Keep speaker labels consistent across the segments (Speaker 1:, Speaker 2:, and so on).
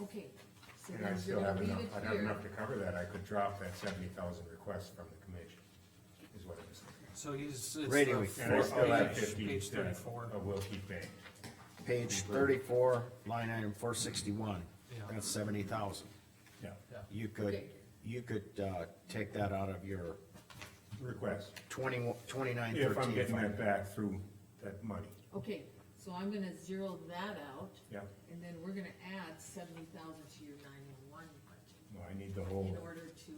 Speaker 1: Okay. so
Speaker 2: And I
Speaker 1: then
Speaker 2: still
Speaker 1: we're
Speaker 2: have
Speaker 1: gonna
Speaker 2: enough,
Speaker 1: leave it
Speaker 2: I'd have
Speaker 1: here.
Speaker 2: enough to cover that, I could drop that seventy thousand request from the commission, is what I'm saying.
Speaker 3: So he's, it's
Speaker 4: Rating
Speaker 3: the
Speaker 4: we-
Speaker 2: And I still
Speaker 3: fourth
Speaker 2: have
Speaker 3: page,
Speaker 2: fifteen
Speaker 3: page
Speaker 2: instead of-
Speaker 3: thirty-four.
Speaker 2: of Will uh, Keep Bank.
Speaker 4: Page thirty-four, line item four sixty-one,
Speaker 3: Yeah.
Speaker 4: that's seventy thousand.
Speaker 2: Yeah,
Speaker 3: Yeah.
Speaker 4: You could,
Speaker 1: Okay.
Speaker 4: you could, uh, take that out of your
Speaker 2: request,
Speaker 4: twenty, twenty-nine
Speaker 2: if I'm
Speaker 4: thirteen
Speaker 2: getting that
Speaker 4: fund.
Speaker 2: back through that money,
Speaker 1: Okay, so I'm gonna zero that out,
Speaker 2: yeah,
Speaker 1: and then we're gonna add seventy thousand to your nine-one-one budget
Speaker 2: no, I need the
Speaker 1: in
Speaker 2: whole,
Speaker 1: order to,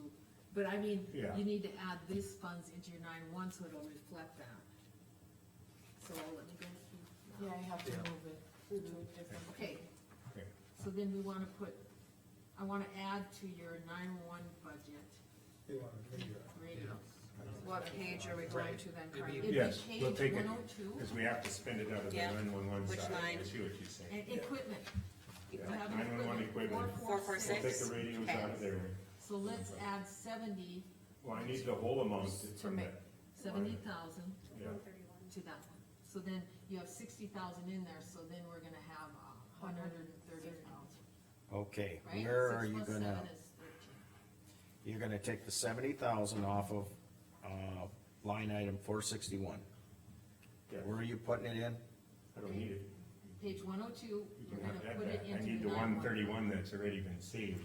Speaker 1: but I mean,
Speaker 2: Oh. Yeah.
Speaker 1: you need to add these funds into your nine-one, so it'll reflect that. So let me go through.
Speaker 5: Yeah, I have to
Speaker 3: Yeah.
Speaker 5: move it to a different.
Speaker 1: Okay,
Speaker 2: okay,
Speaker 1: so then we wanna put, I wanna add to your nine-one budget radios.
Speaker 5: What page are we going to then,
Speaker 3: Maybe-
Speaker 5: Carmen?
Speaker 1: It'd be
Speaker 2: Yes,
Speaker 1: page
Speaker 2: we'll take it.
Speaker 1: 102.
Speaker 2: because we have to spend it out of the
Speaker 6: Yeah.
Speaker 2: nine-one-one
Speaker 6: Which
Speaker 2: side, I
Speaker 6: line?
Speaker 2: see what you're saying.
Speaker 1: And equipment, you
Speaker 2: Yeah.
Speaker 1: have an
Speaker 2: 911
Speaker 1: equipment,
Speaker 2: equipment.
Speaker 1: four, four,
Speaker 6: 446.
Speaker 2: We'll take
Speaker 1: six,
Speaker 2: the radios
Speaker 6: Okay.
Speaker 2: out of there,
Speaker 1: so let's add seventy,
Speaker 2: well, I need the whole amount from
Speaker 5: make-
Speaker 2: that,
Speaker 1: seventy thousand
Speaker 2: yeah,
Speaker 1: to that one. So then you have sixty thousand in there, so then we're gonna have a hundred and thirty thousand,
Speaker 4: Okay,
Speaker 1: right?
Speaker 4: where
Speaker 1: Six
Speaker 4: are you
Speaker 1: plus
Speaker 4: gonna,
Speaker 1: seven is 13.
Speaker 4: you're gonna take the seventy thousand off of, uh, line item four sixty-one.
Speaker 2: yeah,
Speaker 4: Where are you putting it in?
Speaker 2: I don't need it.
Speaker 1: Page one oh two,
Speaker 2: You
Speaker 1: you're
Speaker 2: can
Speaker 1: gonna
Speaker 2: have that
Speaker 1: put it
Speaker 2: back. I need
Speaker 1: into
Speaker 2: the
Speaker 1: the
Speaker 2: one
Speaker 1: nine
Speaker 2: thirty-one that's already been saved.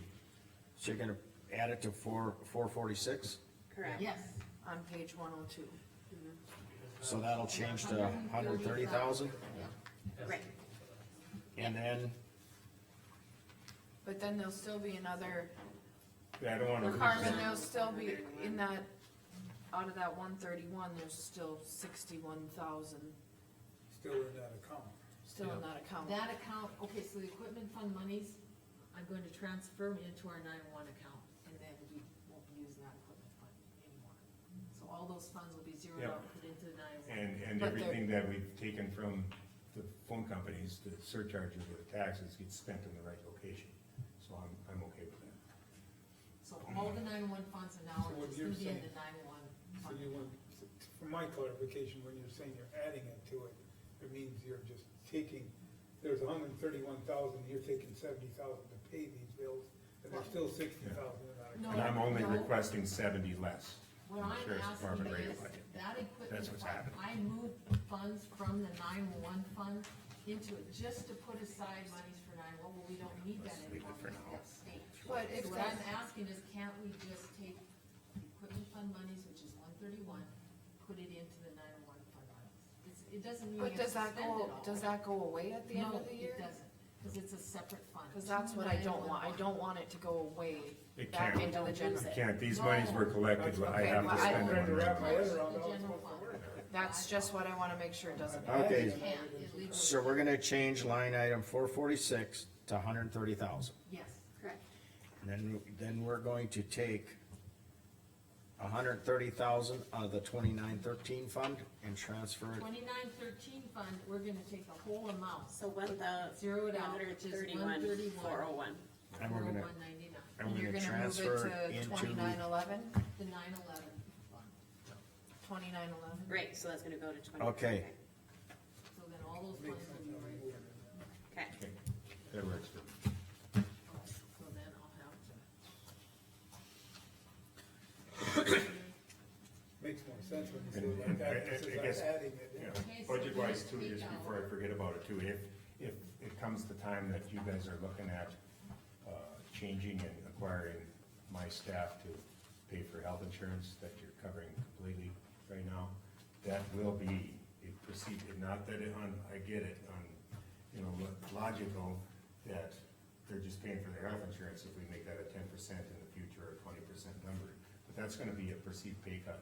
Speaker 4: So you're gonna add it to four, four forty-six,
Speaker 6: Correct.
Speaker 1: Yes,
Speaker 5: On page one oh two.
Speaker 4: so that'll change to hundred thirty thousand,
Speaker 1: yeah,
Speaker 6: Right.
Speaker 4: and then,
Speaker 5: But then there'll still be another,
Speaker 2: Yeah, I don't wanna lose
Speaker 5: Carmen,
Speaker 2: that.
Speaker 5: there'll still be, in that, out of that one thirty-one, there's still sixty-one thousand
Speaker 7: still in that account.
Speaker 5: still in that account.
Speaker 1: that account, okay, so the equipment fund monies, I'm going to transfer them into our nine one account, and then we won't use that equipment fund anymore. So all those funds will be zeroed
Speaker 2: Yeah.
Speaker 1: out, put into the nine one.
Speaker 2: And, and
Speaker 5: But they're-
Speaker 2: everything that we've taken from the phone companies, the surcharge of the taxes gets spent in the right location. So I'm, I'm okay with that.
Speaker 1: So all the nine one funds are now,
Speaker 7: So what
Speaker 1: just
Speaker 7: you're
Speaker 1: gonna be in
Speaker 7: saying-
Speaker 1: the nine one
Speaker 7: So
Speaker 1: fund.
Speaker 7: you want, for my clarification, when you're saying you're adding it to it, it means you're just taking, there's hundred and thirty-one thousand, you're taking seventy thousand to pay these bills, and there's still sixty thousand in that account.
Speaker 2: And I'm only
Speaker 1: No.
Speaker 2: requesting seventy less.
Speaker 1: What
Speaker 2: from the
Speaker 1: I'm
Speaker 2: sheriff's
Speaker 1: asking
Speaker 2: department
Speaker 1: is,
Speaker 2: rate budget.
Speaker 1: that equipment
Speaker 2: That's what's
Speaker 1: fund,
Speaker 2: happening.
Speaker 1: I moved funds from the nine-one fund into it, just to put aside monies for nine-one, well, we don't need that anymore, because that's state.
Speaker 5: But
Speaker 1: So
Speaker 5: if
Speaker 1: what I'm
Speaker 5: that's-
Speaker 1: asking is, can't we just take equipment fund monies, which is one thirty-one, put it into the nine-one fund monies? It's, it doesn't mean
Speaker 5: But
Speaker 1: you have to
Speaker 5: does
Speaker 1: spend it
Speaker 5: that
Speaker 1: all.
Speaker 5: go, does that go away at the end of the year?
Speaker 1: No, it doesn't, because it's a separate fund.
Speaker 5: Cause that's
Speaker 1: Two
Speaker 5: what I
Speaker 1: 911
Speaker 5: don't want, I don't want it to go away
Speaker 2: It
Speaker 5: back
Speaker 2: can't.
Speaker 5: into the general.
Speaker 2: I can't, these monies were collected, but I
Speaker 5: Okay,
Speaker 2: have
Speaker 5: well,
Speaker 2: to
Speaker 5: I-
Speaker 2: spend
Speaker 7: Trying to
Speaker 2: them.
Speaker 7: wrap
Speaker 2: on-
Speaker 7: my head around
Speaker 1: The
Speaker 7: how it's
Speaker 1: general
Speaker 7: supposed to work.
Speaker 5: That's just what I wanna make sure it doesn't.
Speaker 7: I'm
Speaker 4: Okay.
Speaker 7: adding
Speaker 1: Can't,
Speaker 7: it.
Speaker 1: it legally-
Speaker 4: so we're gonna change line item four forty-six to hundred thirty thousand.
Speaker 1: Yes.
Speaker 6: Correct.
Speaker 4: And then, then we're going to take hundred thirty thousand out of the twenty-nine thirteen fund and transfer it,
Speaker 1: Twenty-nine thirteen fund, we're gonna take the whole amount,
Speaker 6: So one thou-
Speaker 1: Zero it out, which is
Speaker 6: 131, 401.
Speaker 4: and we're gonna,
Speaker 1: oh one ninety-nine,
Speaker 4: and we're
Speaker 5: You're
Speaker 4: gonna
Speaker 5: gonna move it
Speaker 4: transfer it
Speaker 5: to
Speaker 4: into.
Speaker 5: twenty-nine eleven,
Speaker 1: the nine eleven fund.
Speaker 5: twenty-nine eleven?
Speaker 6: Right, so that's gonna go to twenty.
Speaker 4: Okay.
Speaker 1: So then all those funds will be right there.
Speaker 6: Okay,
Speaker 2: Okay, That works for me.
Speaker 1: So then I'll have to,
Speaker 7: Makes more sense when you say it like that,
Speaker 2: And- and- I
Speaker 7: because
Speaker 2: guess-
Speaker 7: I'm adding it.
Speaker 2: Yeah,
Speaker 7: in.
Speaker 1: Okay, so
Speaker 2: budget wise too,
Speaker 1: we
Speaker 2: just
Speaker 1: got-
Speaker 2: before I forget about it too, if, if it comes the time that you guys are looking at, uh, changing and acquiring my staff to pay for health insurance that you're covering completely right now, that will be a procedure, not that it on, I get it, on, you know, lo- logical that they're just paying for their health insurance if we make that a ten percent in the future or twenty percent number, but that's gonna be a perceived pay cut.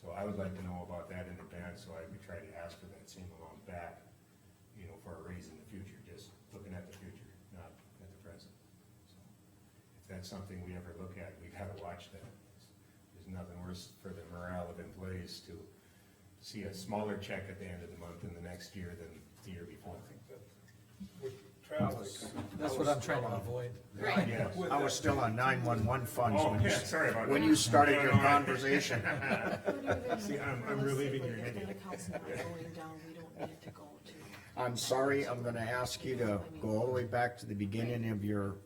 Speaker 2: So I would like to know about that in advance, so I would try to ask for that same amount back, you know, for a raise in the future, just looking at the future, not at the present. So If that's something we ever look at, we gotta watch that. There's nothing worse for the morale of employees to see a smaller check at the end of the month in the next year than the year before.
Speaker 7: With Travis.
Speaker 3: That's what I'm trying to avoid.
Speaker 6: right.
Speaker 2: Yes.
Speaker 7: with
Speaker 4: I
Speaker 7: that-
Speaker 4: was still on nine-one-one funds
Speaker 2: Oh,
Speaker 4: when you,
Speaker 2: yeah, sorry about that.
Speaker 4: when you started
Speaker 2: No,
Speaker 4: your
Speaker 2: no, I-
Speaker 4: conversation.
Speaker 2: See, I'm, I'm relieving your headache.
Speaker 5: Going down, we don't need it to go to.
Speaker 4: I'm sorry, I'm gonna ask you to go all the way back to the beginning of your